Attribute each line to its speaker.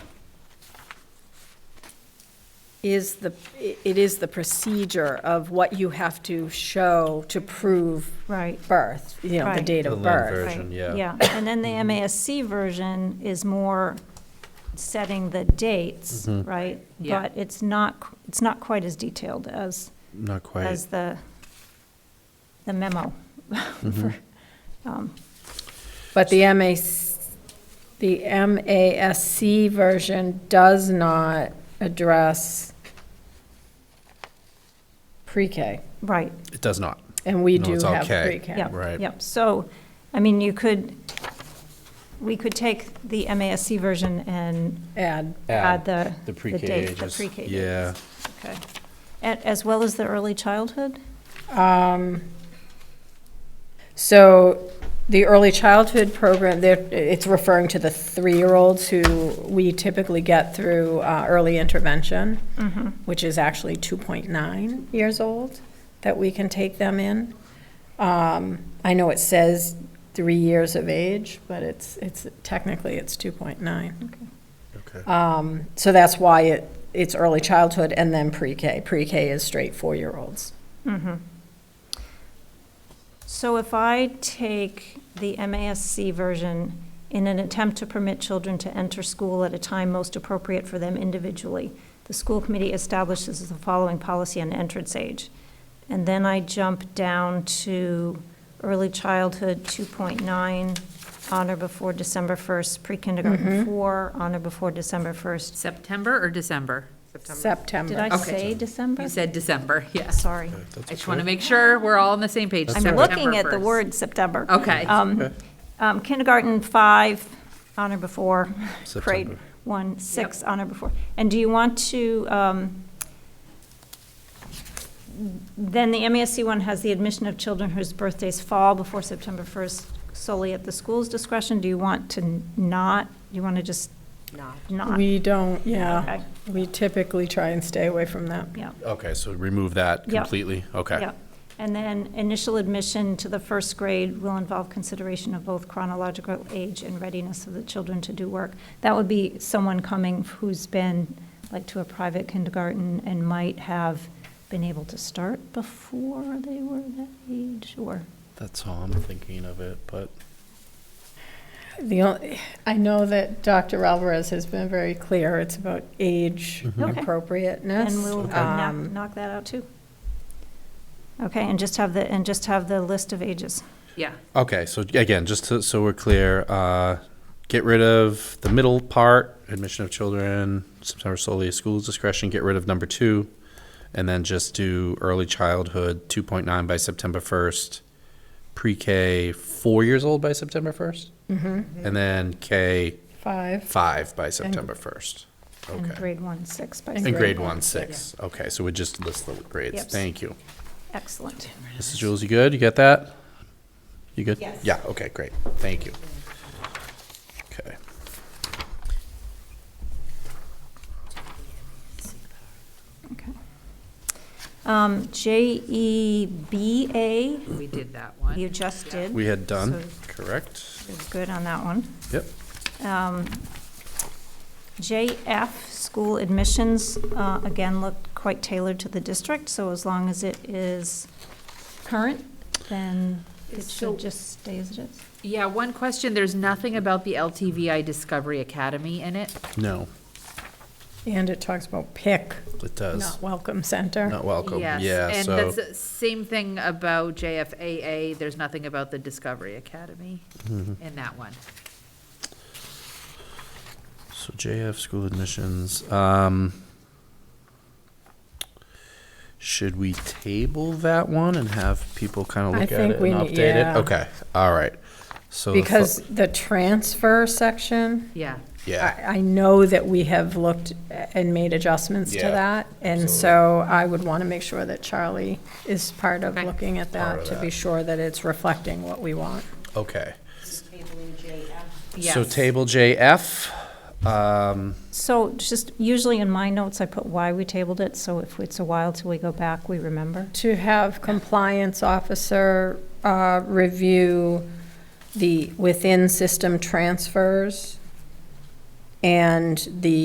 Speaker 1: is the, it is the procedure of what you have to show to prove
Speaker 2: Right.
Speaker 1: birth, you know, the
Speaker 2: Right.
Speaker 1: date
Speaker 3: The
Speaker 1: of
Speaker 3: land
Speaker 1: birth.
Speaker 3: version,
Speaker 2: Right,
Speaker 3: yeah.
Speaker 2: Yeah, and then the MASC version is more setting the dates,
Speaker 3: Mhm.
Speaker 2: right?
Speaker 4: Yeah.
Speaker 2: But it's not, qu- it's not quite as detailed as,
Speaker 3: Not quite.
Speaker 2: as the, the memo.
Speaker 3: Mhm.
Speaker 2: Um,
Speaker 1: But the MAS, the MASC version does not address pre-K,
Speaker 2: Right,
Speaker 3: It does not,
Speaker 1: and we
Speaker 3: No,
Speaker 1: do
Speaker 3: it's all
Speaker 1: have
Speaker 3: K.
Speaker 1: pre-K.
Speaker 2: yep,
Speaker 3: Right.
Speaker 2: yep. So, I mean, you could, we could take the MASC version and
Speaker 1: Add,
Speaker 2: add the, the
Speaker 3: the pre-K
Speaker 2: date, the
Speaker 3: ages.
Speaker 2: pre-K dates.
Speaker 3: Yeah,
Speaker 2: Okay. A- As well as the early childhood?
Speaker 1: um, so the early childhood program, there, it's referring to the three-year-olds who we typically get through, uh, early intervention.
Speaker 2: Mm-hmm.
Speaker 1: which is actually 2.9 years old, that we can take them in. Um, I know it says three years of age, but it's, it's, technically, it's 2.9.
Speaker 3: okay.
Speaker 1: Um, So that's why it, it's early childhood and then pre-K. Pre-K is straight four-year-olds.
Speaker 2: Mhm. So if I take the MASC version in an attempt to permit children to enter school at a time most appropriate for them individually, the school committee establishes the following policy on entrance age. And then I jump down to early childhood 2.9, on or before December 1st,
Speaker 4: Mm-hmm.
Speaker 2: pre-kindergarten 4, on or before December 1st.
Speaker 4: September or December?
Speaker 1: September.
Speaker 2: Did I
Speaker 4: Okay.
Speaker 2: say December?
Speaker 4: You said December, yes.
Speaker 2: Sorry.
Speaker 4: I just want to make sure we're all on the same page.
Speaker 2: I'm
Speaker 4: September
Speaker 2: looking at the
Speaker 4: 1st.
Speaker 2: word September.
Speaker 4: Okay.
Speaker 2: Um, um, Kindergarten, five, honor before, grade
Speaker 3: September.
Speaker 2: one, six, honor before. And do you want to, um, then the MASC one has the admission of children whose birthdays fall before September 1st solely at the school's discretion. Do you want to n- not, do you want to just
Speaker 4: Not.
Speaker 2: not?
Speaker 1: We don't, yeah,
Speaker 2: Okay,
Speaker 1: we typically try and stay away from that.
Speaker 2: yeah.
Speaker 3: Okay, so remove that
Speaker 2: Yeah.
Speaker 3: completely, okay.
Speaker 2: Yeah, and then initial admission to the first grade will involve consideration of both chronological age and readiness of the children to do work. That would be someone coming who's been, like, to a private kindergarten and might have been able to start before they were that age, or,
Speaker 3: That's all I'm thinking of it, but
Speaker 1: The only, I know that Dr. Alvarez has been very clear, it's about age
Speaker 3: Mhm.
Speaker 2: Okay.
Speaker 1: appropriateness.
Speaker 2: and we'll
Speaker 3: Okay.
Speaker 2: knock,
Speaker 1: Um,
Speaker 2: knock that out too. Okay, and just have the, and just have the list of ages.
Speaker 4: Yeah,
Speaker 3: Okay, so again, just to, so we're clear, uh, get rid of the middle part, admission of children, September solely at school's discretion, get rid of number two, and then just do early childhood, two point nine by September first, pre-K, four years old by September 1st and then K,
Speaker 1: Five.
Speaker 3: five by September first.
Speaker 2: And
Speaker 3: Okay.
Speaker 2: grade one, six, by
Speaker 1: And
Speaker 3: And
Speaker 1: grade
Speaker 3: grade one, six. Okay, so we just list the grades.
Speaker 2: Yep.
Speaker 3: Thank you.
Speaker 2: excellent.
Speaker 3: Mrs. Jules, you good? You get that? You good? Yes. Yeah, okay, great. Thank you. Okay.
Speaker 2: Okay. Um, JEBA,
Speaker 4: we did that one.
Speaker 2: you just did.
Speaker 3: We had done,
Speaker 2: So-
Speaker 3: correct?
Speaker 2: You're Good on that one.
Speaker 3: Yep.
Speaker 2: Um, JF, school admissions, uh, again, looked quite tailored to the district, so as long as it is current, then it
Speaker 4: So-
Speaker 2: should just stay as it is.
Speaker 4: Yeah, one question, there's nothing about the LTVI Discovery Academy in it.
Speaker 3: No,
Speaker 1: And it talks about pick,
Speaker 3: it
Speaker 1: not
Speaker 3: does.
Speaker 1: welcome center.
Speaker 3: Not welcome.
Speaker 4: Yes,
Speaker 3: Yeah,
Speaker 4: And
Speaker 3: so,
Speaker 4: that's the same thing about JFAA, there's nothing about the Discovery Academy
Speaker 3: Mm-hmm.
Speaker 4: in that one.
Speaker 3: so JF school admissions, um, should we table that one and have people kind
Speaker 1: I
Speaker 3: of look at
Speaker 1: think
Speaker 3: it
Speaker 1: we
Speaker 3: and
Speaker 1: need-
Speaker 3: update
Speaker 1: yeah.
Speaker 3: it? Okay, all right. So, the fo-
Speaker 1: Because the transfer section,
Speaker 4: Yeah,
Speaker 3: yeah,
Speaker 1: I, I know that we have looked and made adjustments to
Speaker 3: Yeah,
Speaker 1: that. And
Speaker 3: absolutely.
Speaker 1: so I would want to make sure that Charlie is part of
Speaker 4: Okay.
Speaker 1: looking at
Speaker 3: Part
Speaker 1: that
Speaker 3: of
Speaker 1: to be
Speaker 3: that.
Speaker 1: sure that it's reflecting what we want.
Speaker 3: okay.
Speaker 4: yes.
Speaker 3: So table JF, um,
Speaker 2: So just, usually in my notes, I put why we tabled it, so if it's a while till we go back, we remember.
Speaker 1: To have compliance officer, uh, review the within-system transfers and the